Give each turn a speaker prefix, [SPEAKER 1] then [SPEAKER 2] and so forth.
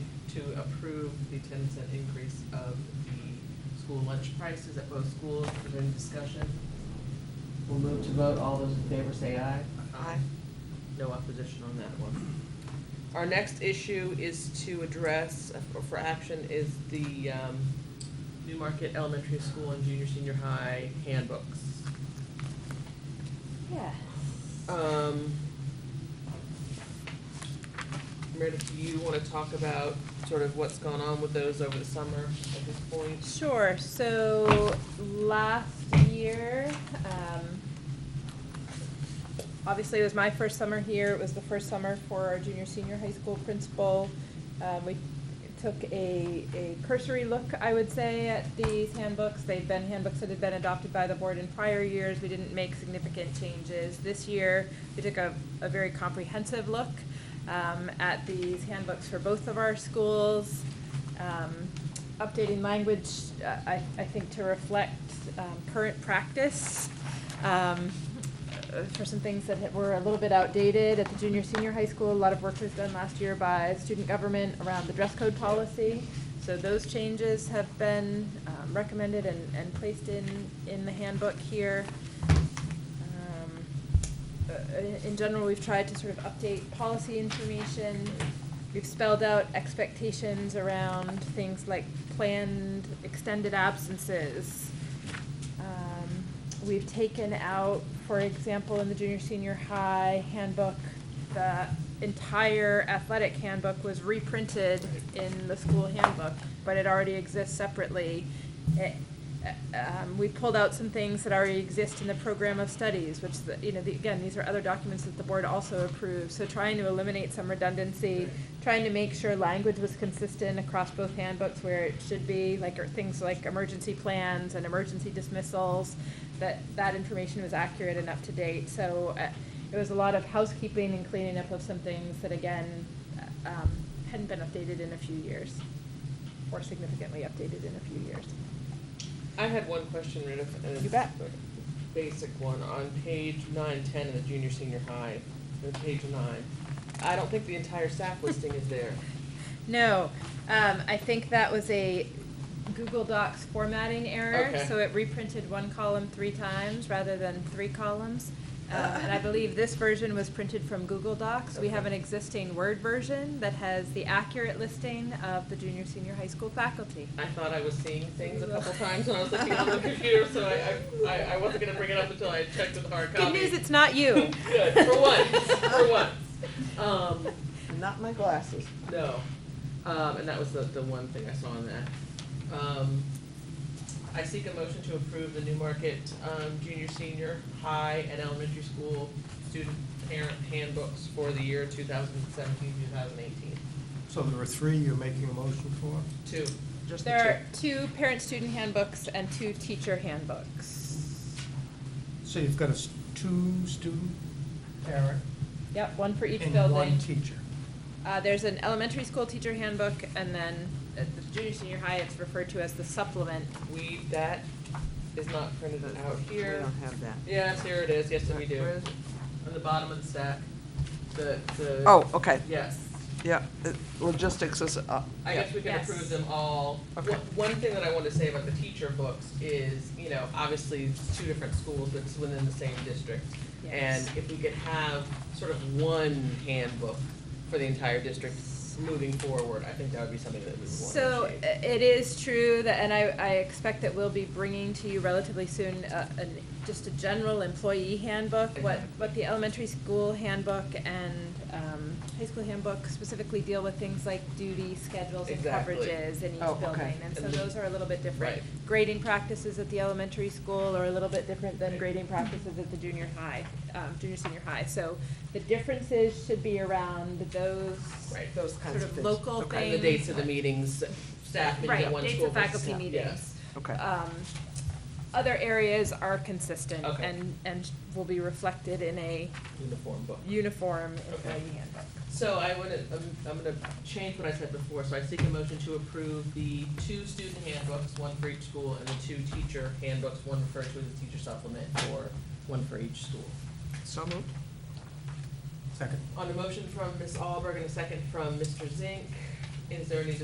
[SPEAKER 1] to approve the ten cent increase of the school lunch prices at both schools. Is there any discussion? We'll move to vote. All those in favor say aye.
[SPEAKER 2] Aye.
[SPEAKER 1] No opposition on that one. Our next issue is to address, uh, for- for action, is the um, New Market Elementary School and Junior Senior High handbooks.
[SPEAKER 3] Yes. Uh,
[SPEAKER 1] Um, Meredith, do you want to talk about sort of what's gone on with those over the summer at this point?
[SPEAKER 3] Sure, so last year, um, obviously it was my first summer here, it was the first summer for our junior, senior high school principal. Um, we took a, a cursory look, I would say, at these handbooks. They've been handbooks that had been adopted by the board in prior years, we didn't make significant changes. This year, we took a, a very comprehensive look, um, at these handbooks for both of our schools. Um, updating language, uh, I, I think to reflect, um, current practice. Um, uh, for some things that had- were a little bit outdated at the junior, senior high school. A lot of work was done last year by student government around the dress code policy. So those changes have been um, recommended and, and placed in, in the handbook here. Um, uh, in- In general, we've tried to sort of update policy information. We've spelled out expectations around things like planned extended absences. Um, We've taken out, for example, in the junior, senior high handbook, the entire athletic handbook was reprinted in the school handbook, but it already exists separately. It- uh, um, We pulled out some things that already exist in the program of studies, which, the- you know, the- again, these are other documents that the board also approves. So trying to eliminate some redundancy, trying to make sure language was consistent across both handbooks where it should be, like, or things like emergency plans and emergency dismissals, that, that information was accurate and up to date. So uh, it was a lot of housekeeping and cleaning up of some things that, again, uh, um, hadn't been updated in a few years, or significantly updated in a few years.
[SPEAKER 1] I had one question, Meredith. and
[SPEAKER 3] You
[SPEAKER 1] it's
[SPEAKER 3] bet.
[SPEAKER 1] a Basic one, on page nine, ten in the junior, senior high, or page nine. I don't think the entire staff listing is there.
[SPEAKER 3] No, um, I think that was a Google Docs formatting error,
[SPEAKER 1] Okay.
[SPEAKER 3] so it reprinted one column three times rather than three columns. Um, and I believe this version was printed from Google Docs. We have
[SPEAKER 1] Ah. Okay.
[SPEAKER 3] an existing Word version that has the accurate listing of the junior, senior high school faculty.
[SPEAKER 1] I thought I was seeing things a couple times when I was looking on the computer, so I, I, I wasn't gonna bring it up until I had checked with hard
[SPEAKER 3] Good
[SPEAKER 1] copy.
[SPEAKER 3] news, it's not you.
[SPEAKER 1] Good, for once, for once. Um,
[SPEAKER 2] Not my glasses.
[SPEAKER 1] no, um, and that was the, the one thing I saw in that. Um, I seek a motion to approve the Newmarket, um, junior, senior, high, and elementary school student parent handbooks for the year 2017-2018.
[SPEAKER 4] So there are three you're making a motion for?
[SPEAKER 1] Two, just the two.
[SPEAKER 3] There are two parent-student handbooks and two teacher handbooks.
[SPEAKER 4] So you've got a s- two student parent
[SPEAKER 3] Yep, one for each building.
[SPEAKER 4] and one teacher.
[SPEAKER 3] Uh, there's an elementary school teacher handbook, and then at the junior, senior high, it's referred to as the supplement.
[SPEAKER 1] We, that is not printed out here.
[SPEAKER 2] Oh, We don't have that.
[SPEAKER 1] Yes, here it is, yes, we do.
[SPEAKER 2] Where is it?
[SPEAKER 1] On the bottom of the stack, the, the.
[SPEAKER 2] Oh, okay,
[SPEAKER 1] Yes,
[SPEAKER 2] yeah, it- logistics is, uh,
[SPEAKER 1] I guess we can
[SPEAKER 3] Yes.
[SPEAKER 1] approve them all.
[SPEAKER 2] Okay.
[SPEAKER 1] One- One thing that I wanted to say about the teacher books is, you know, obviously, it's two different schools, but it's within the same district. And if we could have sort of one handbook for the entire district moving forward, I think that would be something that we would want to
[SPEAKER 3] So
[SPEAKER 1] achieve.
[SPEAKER 3] i- it is true that, and I, I expect that we'll be bringing to you relatively soon, uh, an, just a general employee handbook, what,
[SPEAKER 1] Exactly.
[SPEAKER 3] what the elementary school handbook and, um, high school handbook specifically deal with things like duty, schedules, and
[SPEAKER 1] Exactly.
[SPEAKER 3] coverages in each
[SPEAKER 2] Oh,
[SPEAKER 3] building.
[SPEAKER 2] okay.
[SPEAKER 3] And so
[SPEAKER 1] And the-
[SPEAKER 3] those are a little bit different.
[SPEAKER 1] Right.
[SPEAKER 3] Grading practices at the elementary school are a little bit different than
[SPEAKER 1] Right.
[SPEAKER 3] grading practices at the junior high, um, junior, senior high. So the differences should be around those
[SPEAKER 1] Right.
[SPEAKER 2] those kinds
[SPEAKER 3] sort
[SPEAKER 2] of
[SPEAKER 3] of
[SPEAKER 2] things.
[SPEAKER 3] local
[SPEAKER 2] Okay.
[SPEAKER 1] And the dates of the meetings, staff meeting at
[SPEAKER 3] Right,
[SPEAKER 1] one
[SPEAKER 3] dates
[SPEAKER 1] school.
[SPEAKER 3] of faculty
[SPEAKER 1] versus-
[SPEAKER 3] meetings.
[SPEAKER 2] Okay.
[SPEAKER 3] Um, Other areas are consistent
[SPEAKER 1] Okay.
[SPEAKER 3] and, and will be reflected in a
[SPEAKER 1] Yes, uniform book.
[SPEAKER 3] uniform
[SPEAKER 1] Okay.
[SPEAKER 3] employee handbook.
[SPEAKER 1] So I want to, I'm going to change what I said before, so I seek a motion to approve the two student handbooks, one for each school, and the two teacher handbooks, one referred to as a teacher supplement, or one for each school.
[SPEAKER 2] So moved?
[SPEAKER 4] Second.
[SPEAKER 1] On a motion from Ms. Alberg and a second from Mr. Zink, is there any